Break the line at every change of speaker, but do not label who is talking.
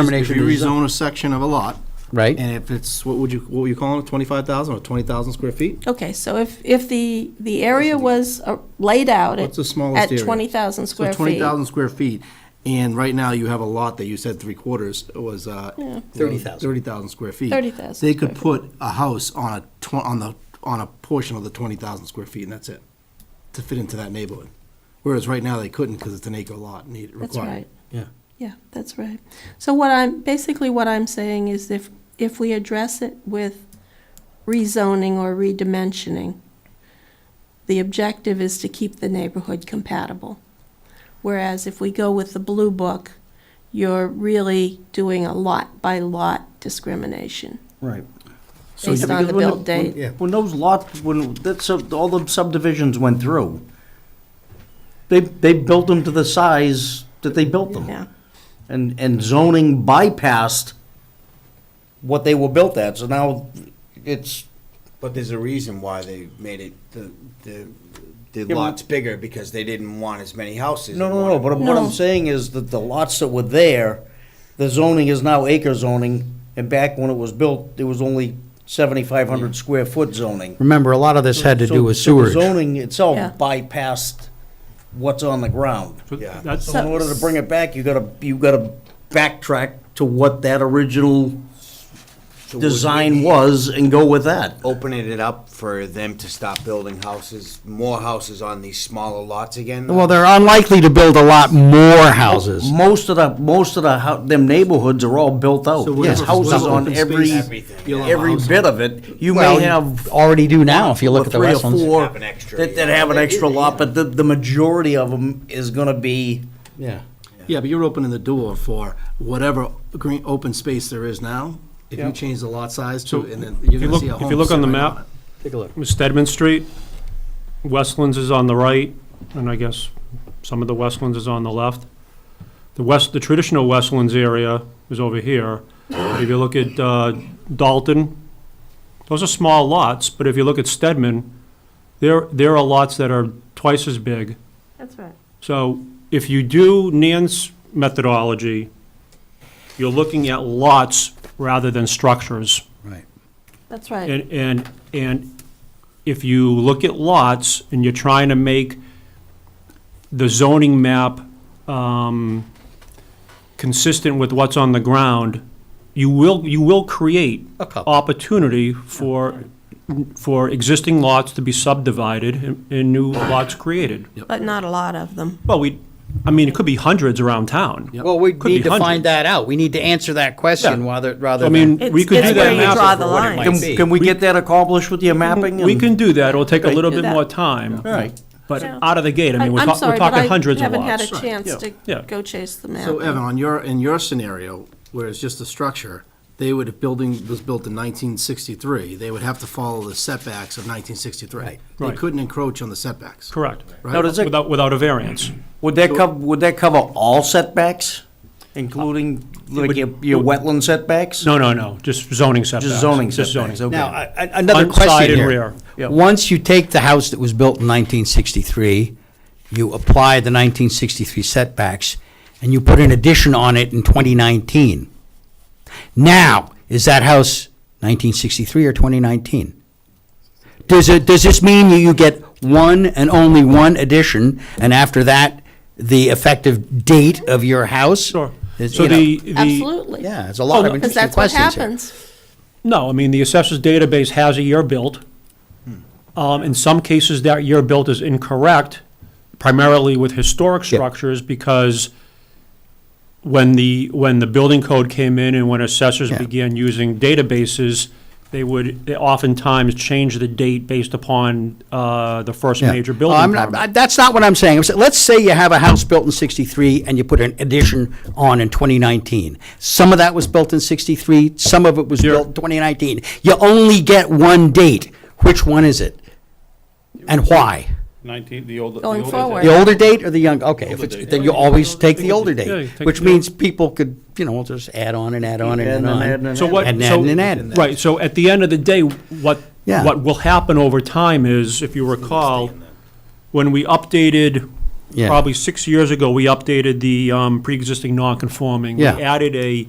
If
determination.
you
to rezone-
rezone a section of a lot,
Right,
and if it's, what would you, what were you calling it, 25,000 or 20,000 square feet?
Okay, so if, if the, the area was uh, laid out at
What's the smallest area?
At 20,000 square
So
feet.
20,000 square feet, and right now you have a lot that you said three quarters was, uh.
Yeah.
30,000.
30,000 square feet.
30,000
They could
square
put a house on a tw- on the, on a portion of the 20,000 square feet, and that's it, to fit into that neighborhood. Whereas right now they couldn't because it's an acre lot need, required.
That's right.
Yeah.
Yeah, that's right. So what I'm, basically what I'm saying is if, if we address it with rezoning or redimensioning, the objective is to keep the neighborhood compatible. Whereas if we go with the blue book, you're really doing a lot by lot discrimination
Right.
So
based
yeah,
on the
because when
build
the- when-
date.
Yeah.
When those lots, when, that's, all the subdivisions went through, they, they built them to the size that they built them.
Yeah,
And, and zoning bypassed what they were built at, so now it's,
But there's a reason why they made it the the the
but-
lots bigger because they didn't want as many houses.
no,
They
no, no,
wanted-
but what
No.
I'm saying is that the lots that were there, the zoning is now acre zoning, and back when it was built, it was only seventy-five hundred square foot zoning.
remember, a lot of this had to do with
So- so the
sewage.
Zoning itself
Yeah.
bypassed what's on the ground.
So
Yeah.
That's,
So in order to bring it back, you gotta, you gotta backtrack to what that original
So we-
design was and go with that.
Opening it up for them to stop building houses, more houses on these smaller lots again.
Well, they're unlikely to build a lot more houses.
Most of the, most of the, hou- them neighborhoods are all built out.
So we're
There's
just-
houses
we're
on
open
every,
space. You allow
every
houses.
bit of it. You
Well,
may have.
Already do now, if you look
or
at the
three or
Westlands.
four
Have an extra,
That, that
yeah.
have an extra lot, but the, the majority of them is gonna be,
Yeah.
Yeah, but you're opening the door for whatever green, open space there is now. If you change the lot size
so
to, and then
if
you're
you
gonna
look,
see a home.
if you look on the
sit right
map,
Take a look.
Stedman Street, Westlands is on the right, and I guess some of the Westlands is on the left. The west, the traditional Westlands area is over here. If you look at uh, Dalton, those are small lots, but if you look at Stedman, there, there are lots that are twice as big.
that's right.
So if you do Nan's methodology, you're looking at lots rather than structures.
That's right.
And, and, and if you look at lots and you're trying to make the zoning map um, consistent with what's on the ground, you will, you will create
A couple.
opportunity for, for existing lots to be subdivided and- and new lots created.
But not a lot of them.
Well, we, I mean, it could be hundreds around town.
Well, we
Could be
need to find
hundreds.
that out. We need to answer that question
Yeah.
rather, rather
I
than.
mean,
It's-
we could
it's
do
where
that
you
map.
draw the line.
can, can we get that accomplished with your mapping?
We
and-
can do that. It'll take a little
do
bit
that.
more time.
All right.
But
Yeah.
out of the gate, I mean, we're
I'm
talk-
sorry,
we're
but
talking
I
hundreds of
Haven't
lots.
had a chance to
Yeah.
go chase the map.
So Evan, on your, in your scenario, where it's just a structure, they would, if building was built in nineteen sixty-three, they would have to follow the setbacks of nineteen sixty-three. They
Right.
couldn't encroach on the setbacks.
Correct.
Now, does it,
Without, without a variance.
would that cover, would that cover all setbacks, including like your, your wetland setbacks?
No, no, no, just zoning setbacks.
Just zoning
Just
setbacks,
zoning.
okay.
Now, I- I- another
Front, side,
question
and
here.
rear.
Yep.
Once you take the house that was built in 1963, you apply the 1963 setbacks, and you put an addition on it in 2019. Now, is that house 1963 or 2019? Does it, does this mean you- you get one and only one addition, and after that, the effective date of your house?
Sure.
is,
So
you know-
the, the,
Absolutely.
Yeah, there's a lot of
Because
interesting
that's what
questions here.
happens.
no, I mean, the assessor's database has a year built.
Hmm.
Um, in some cases, that year built is incorrect, primarily with historic structures, because when the, when the building code came in and when assessors
Yeah.
began using databases, they would they oftentimes change the date based upon, uh, the first
Yeah.
major
Oh,
building
I'm not-
permit.
I- That's not what I'm saying. I'm sa- Let's say you have a house built in 63 and you put an addition on in 2019. Some of that was built in 63, some of it was
You're-
built in 2019. You only get one date. Which one is it? And why?
19, the old. the
Going
old-
forward.
The older date or the young, okay, if
Older
it's,
date.
then you always take the older
Yeah, you
date,
take
which
the old-
means people could, you know, just add on and add on and add
And then
on.
add and then
So
add.
what?
And
so-
add and add.
Right, so at the end of the day, what,
Yeah.
what will happen over time is, if you recall, when we updated,
Yeah.
probably six years ago, we updated the um, pre-existing non-conforming.
Yeah.
We added a